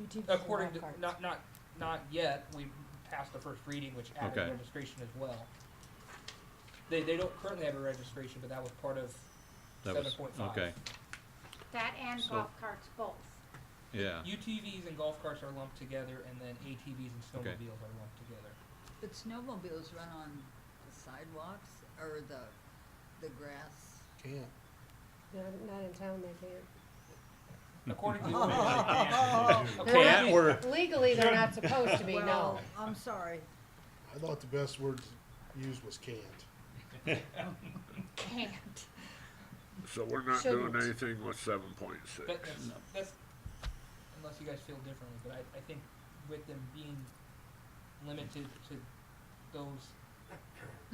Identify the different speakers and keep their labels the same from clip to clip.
Speaker 1: UTVs and
Speaker 2: According to,
Speaker 1: golf carts.
Speaker 2: not, not, not yet, we passed the first reading, which added
Speaker 3: Okay.
Speaker 2: registration as well. They, they don't currently have a registration, but that was part of
Speaker 3: That was-
Speaker 2: seven point five.
Speaker 3: Okay,
Speaker 4: That and
Speaker 3: So-
Speaker 4: golf carts both.
Speaker 3: yeah,
Speaker 2: UTVs and golf carts are lumped together, and then ATVs and
Speaker 3: Okay.
Speaker 2: snowmobiles are lumped together.
Speaker 5: But snowmobiles run on the sidewalks or the, the grass?
Speaker 6: Can't.
Speaker 1: Not, not in town, they can't.
Speaker 2: According to. According
Speaker 3: Can't
Speaker 2: to-
Speaker 3: or,
Speaker 1: Legally, they're not supposed to be, no.
Speaker 5: Well, I'm sorry.
Speaker 6: I thought the best word used was can't.
Speaker 4: Can't.
Speaker 7: So we're not doing
Speaker 1: Shouldn't.
Speaker 7: anything with seven point six.
Speaker 2: But that's, that's, unless you guys feel differently, but I, I think with them being limited to those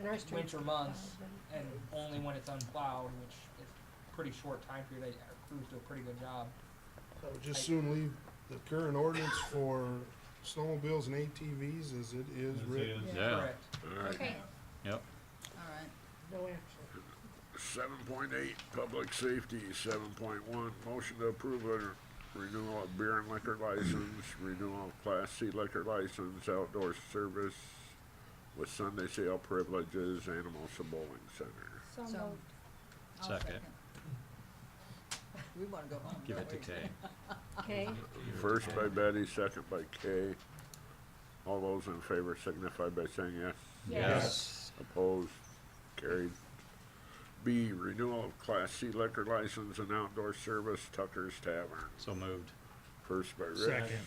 Speaker 1: And our streets. Uh,
Speaker 2: winter months and only when it's unplowed, which is pretty short time period, I- our crews do a pretty good job.
Speaker 6: I would just soon leave the current ordinance for snowmobiles and ATVs as it is written.
Speaker 3: yeah,
Speaker 2: Correct.
Speaker 7: Alright,
Speaker 4: Okay,
Speaker 3: yep,
Speaker 5: All right.
Speaker 1: No action.
Speaker 7: seven point eight, public safety, seven point one, motion to approve a renewal of beer and liquor license, renewal of class C liquor license, outdoor service with Sunday sale privileges, Animals and Bowling Center.
Speaker 1: So
Speaker 5: So-
Speaker 1: moved.
Speaker 5: I'll
Speaker 3: Second.
Speaker 5: We wanna go home.
Speaker 3: give
Speaker 5: don't
Speaker 3: it to
Speaker 5: we?
Speaker 3: Kay.
Speaker 1: Okay,
Speaker 7: First by Betty, second by Kay. All those in favor signify by saying yes.
Speaker 3: Yes.
Speaker 7: Opposed, carried. B, renewal of Class C liquor license and outdoor service Tucker's Tavern.
Speaker 3: So moved,
Speaker 7: First by Rich.
Speaker 8: Second.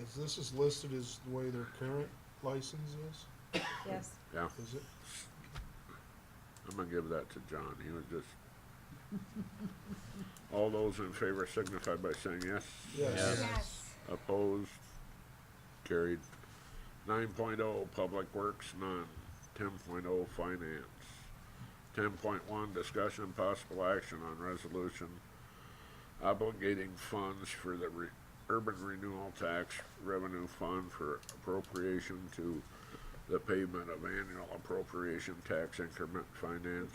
Speaker 6: As this is listed as the way their current license is,
Speaker 1: yes.
Speaker 7: Yeah,
Speaker 6: is it?
Speaker 7: I'm gonna give that to John, he was just. All those in favor signify by saying yes.
Speaker 3: Yes.
Speaker 4: yes.
Speaker 7: Opposed, carried. Nine oh, Public Works, none. Ten oh, Finance. Ten point one, discussion and possible action on resolution obligating funds for the re- urban renewal tax revenue fund for appropriation to the payment of annual appropriation tax increment finance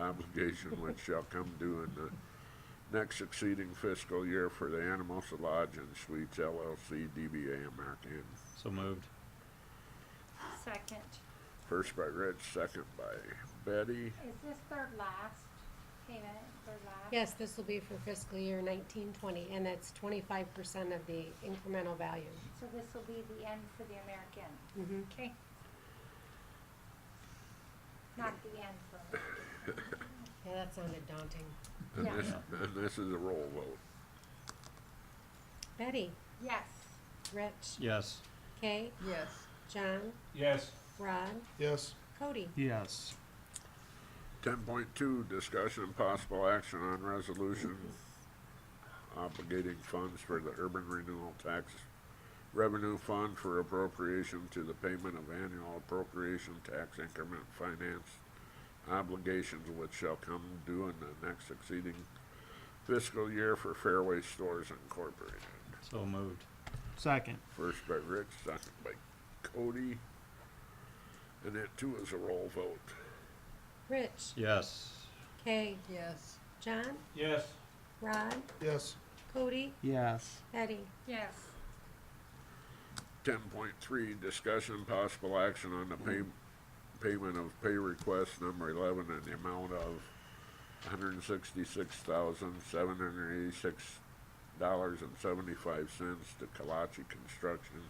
Speaker 7: obligation which shall come due in the next succeeding fiscal year for the Anamosa Lodge and Suites LLC DBA American.
Speaker 3: so moved,
Speaker 4: Second.
Speaker 7: First by Rich, second by Betty.
Speaker 4: Is this their last payment, their last?
Speaker 1: Yes, this will be for fiscal year nineteen twenty, and that's twenty-five percent of the incremental value.
Speaker 4: So this will be the end for the American?
Speaker 1: Mhm.
Speaker 4: Okay. Not the end for American.
Speaker 1: Yeah, that sounded daunting.
Speaker 7: And
Speaker 4: Yeah.
Speaker 7: this, and this is a roll vote.
Speaker 1: Betty,
Speaker 4: Yes,
Speaker 1: Rich,
Speaker 3: yes,
Speaker 1: Kay,
Speaker 5: Yes,
Speaker 1: John,
Speaker 8: Yes.
Speaker 1: Rod,
Speaker 6: Yes,
Speaker 1: Cody.
Speaker 8: Yes.
Speaker 7: Ten point two, discussion and possible action on resolution obligating funds for the urban renewal tax revenue fund for appropriation to the payment of annual appropriation tax increment finance obligations which shall come due in the next succeeding fiscal year for Fairway Stores Incorporated.
Speaker 3: so moved,
Speaker 8: Second.
Speaker 7: First by Rich, second by Cody. And that too is a roll vote.
Speaker 1: Rich,
Speaker 3: yes,
Speaker 1: Kay,
Speaker 5: yes,
Speaker 1: John,
Speaker 8: Yes.
Speaker 1: Rod,
Speaker 6: yes,
Speaker 1: Cody,
Speaker 8: Yes.
Speaker 1: Betty.
Speaker 4: yes,
Speaker 7: Ten point three, discussion possible action on the pay, payment of pay request number eleven in the amount of hundred and sixty-six thousand, seven hundred and eighty-six dollars and seventy-five cents to Kalachi Construction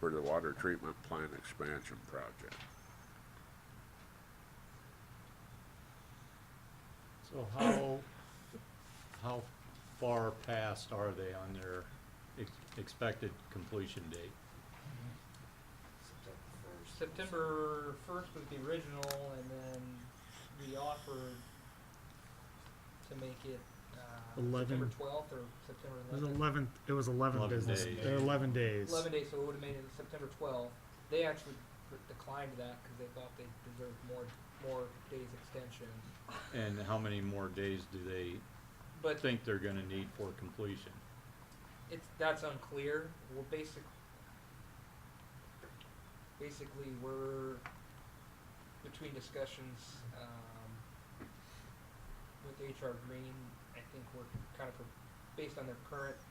Speaker 7: for the water treatment plant expansion project.
Speaker 3: so how, how far past are they on their ex- expected completion date?
Speaker 2: September first was the original, and then we offered to make it, uh,
Speaker 8: Eleven.
Speaker 2: September twelfth or September
Speaker 8: It was
Speaker 2: eleventh.
Speaker 8: eleven, it was eleven
Speaker 3: 11
Speaker 8: business,
Speaker 3: days.
Speaker 8: or eleven days.
Speaker 2: Eleven days, so it would've made it September twelfth. They actually re- declined that, cause they thought they deserved more, more days extension.
Speaker 3: And how many more days do they
Speaker 2: But
Speaker 3: think they're gonna need for completion?
Speaker 2: it's, that's unclear. We're basic, basically, we're between discussions, um, with HR Green. I think we're kind of, pro- based on their current